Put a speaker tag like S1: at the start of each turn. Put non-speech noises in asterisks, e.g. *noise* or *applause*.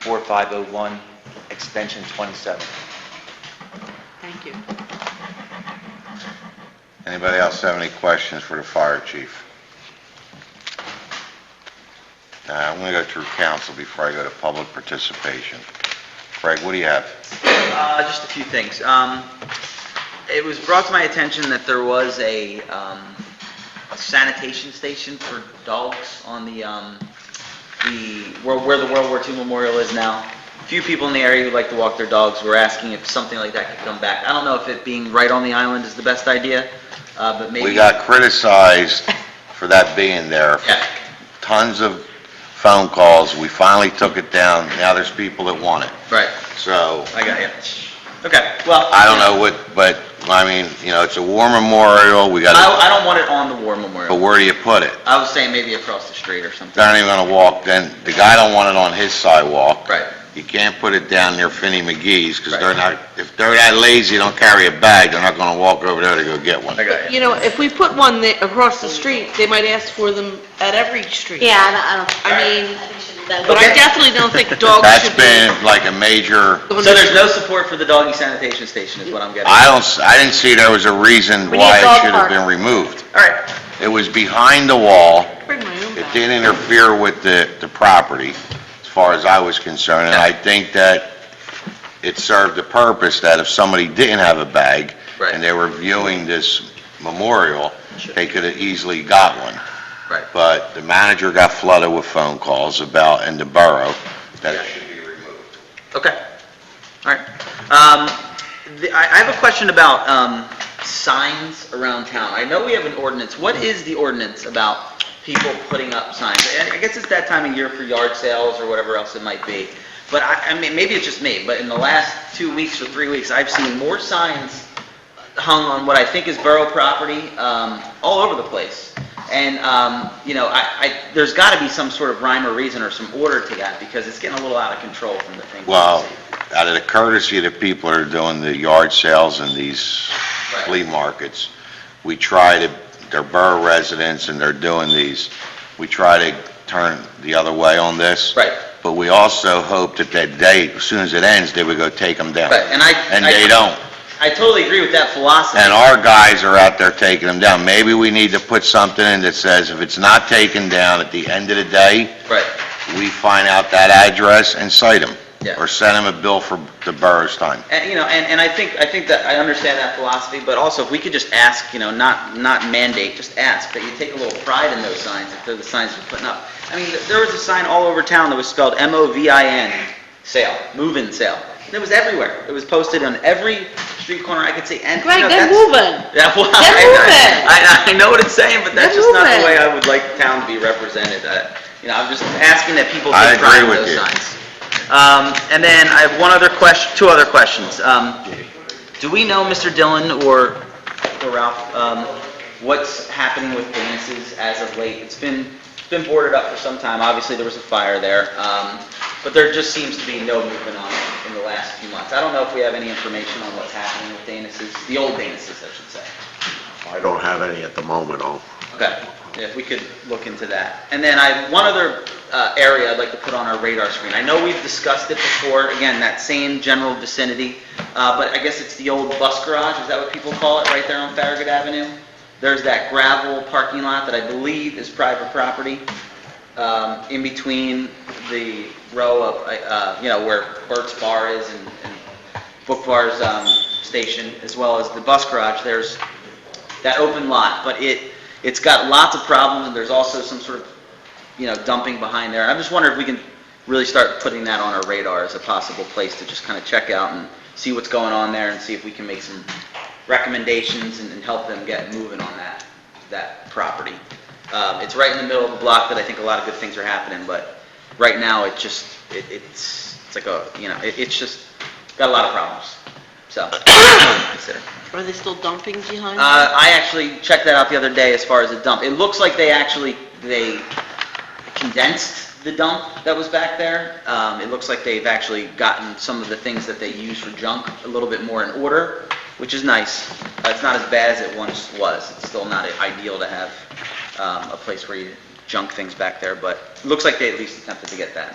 S1: 785-4501, extension 27.
S2: Thank you.
S3: Anybody else have any questions for the fire chief? Uh, I'm going to go through council before I go to public participation. Craig, what do you have?
S4: Uh, Just a few things. Um, It was brought to my attention that there was a um, a sanitation station for dogs on the, um, the, where where the World War II Memorial is now. Few people in the area who like to walk their dogs were asking if something like that could come back. I don't know if it being right on the island is the best idea, uh, but maybe...
S3: We got criticized for that being there.
S4: Yeah.
S3: Tons of phone calls. We finally took it down. Now there's people that want it.
S4: Right,
S3: So
S4: I got you. Okay, well...
S3: I don't know what, but, I mean, you know, it's a war memorial. We got,
S4: I I don't want it on the war
S3: but
S4: memorial.
S3: where do you put it?
S4: I was saying maybe across the street or something.
S3: They're not even gonna walk, then, the guy don't want it on his sidewalk.
S4: Right.
S3: You can't put it down near Finney McGee's, because they're
S4: Right.
S3: not, if they're that lazy, don't carry a bag, they're not gonna walk over there to go get one.
S4: I got you.
S2: You know, if we put one that- across the street, they might ask for them at every street.
S5: Yeah, I don't, I don't,
S2: I mean,
S5: that
S2: but I definitely don't think dogs
S3: That's
S2: should be...
S3: been like a major,
S2: going
S4: So
S2: to-
S4: there's no support for the doggy sanitation station is what I'm getting.
S3: I don't, s- I didn't see there was a reason
S5: We need a
S3: why it
S5: dog
S3: should have
S5: park.
S3: been removed.
S4: All right,
S3: It was behind the wall,
S2: Bring my own
S3: it
S2: back.
S3: didn't interfere with the, the property, as far as I was concerned, and I think that it served the purpose that if somebody didn't have a bag,
S4: Right.
S3: and they were viewing this memorial, they could have easily got one.
S4: right.
S3: But the manager got flooded with phone calls about, in the borough, that it should be removed.
S4: Okay. All right. Um, the- I I have a question about um, signs around town. I know we have an ordinance. What is the ordinance about people putting up signs? And I guess it's that time of year for yard sales or whatever else it might be. But I, I mean, maybe it's just me, but in the last two weeks or three weeks, I've seen more signs hung on what I think is borough property, um, all over the place. And, um, you know, I, I, there's gotta be some sort of rhyme or reason or some order to that, because it's getting a little out of control from the things. we
S3: Well,
S4: see.
S3: out of the courtesy of the people that are doing the yard sales and these flea markets, we try to, they're borough residents and they're doing these, we try to turn the other way on this.
S4: Right.
S3: But we also hope that that day, as soon as it ends, they would go take them down.
S4: Right, and I-
S3: And
S4: I-
S3: they don't.
S4: I totally agree with that philosophy.
S3: And our guys are out there taking them down. Maybe we need to put something in that says if it's not taken down at the end of the day,
S4: Right,
S3: we find out that address and cite them.
S4: Yeah.
S3: Or send them a bill for the borough's time.
S4: and, you know, and, and I think, I think that, I understand that philosophy, but also if we could just ask, you know, not, not mandate, just ask, that you take a little pride in those signs, if they're the signs you're putting up. I mean, th- there was a sign all over town that was spelled M-O-V-I-N, sale, move-in sale, and it was everywhere, it was posted on every street corner I could see, and, you know,
S5: Greg, they're
S4: that's-
S5: moving.
S4: *laughs* Yeah, well,
S5: They're moving.
S4: I, I, I know what it's saying, but that's
S5: They're
S4: just not the way
S5: moving.
S4: I would like the town to be represented. Uh, You know, I'm just asking that people
S3: I
S4: take pride in
S3: agree with
S4: those
S3: you.
S4: signs. Um, and then I have one other question, two other questions. Um, do we know, Mr. Dillon or or Ralph, um, what's happening with Vances as of late? It's been, it's been boarded up for some time. Obviously, there was a fire there. Um, but there just seems to be no movement on it in the last few months. I don't know if we have any information on what's happening with Danis's, the old Danis's, I should say.
S6: I don't have any at the moment, I'll
S4: Okay, yeah, if we could look into that. And then I, one other uh, area I'd like to put on our radar screen. I know we've discussed it before, again, that same general vicinity, uh, but I guess it's the old bus garage, is that what people call it, right there on Farragut Avenue? There's that gravel parking lot that I believe is private property, um, in between the row of, uh, you know, where Burt's Bar is and and Book Bar's um, station, as well as the bus garage. There's that open lot, but it, it's got lots of problems, and there's also some sort of, you know, dumping behind there. I'm just wondering if we can really start putting that on our radar as a possible place to just kind of check out and see what's going on there, and see if we can make some recommendations and and help them get moving on that, that property. Um, It's right in the middle of the block that I think a lot of good things are happening, but right now, it just, it- it's, it's like a, you know, it- it's just, got a lot of problems, so, *coughs* consider.
S2: Are they still dumping behind?
S4: Uh, I actually checked that out the other day as far as a dump. It looks like they actually, they condensed the dump that was back there. Um, it looks like they've actually gotten some of the things that they use for junk a little bit more in order, which is nice. Uh, it's not as bad as it once was. It's still not ideal to have, um, a place where you junk things back there, but it looks like they at least attempted to get that.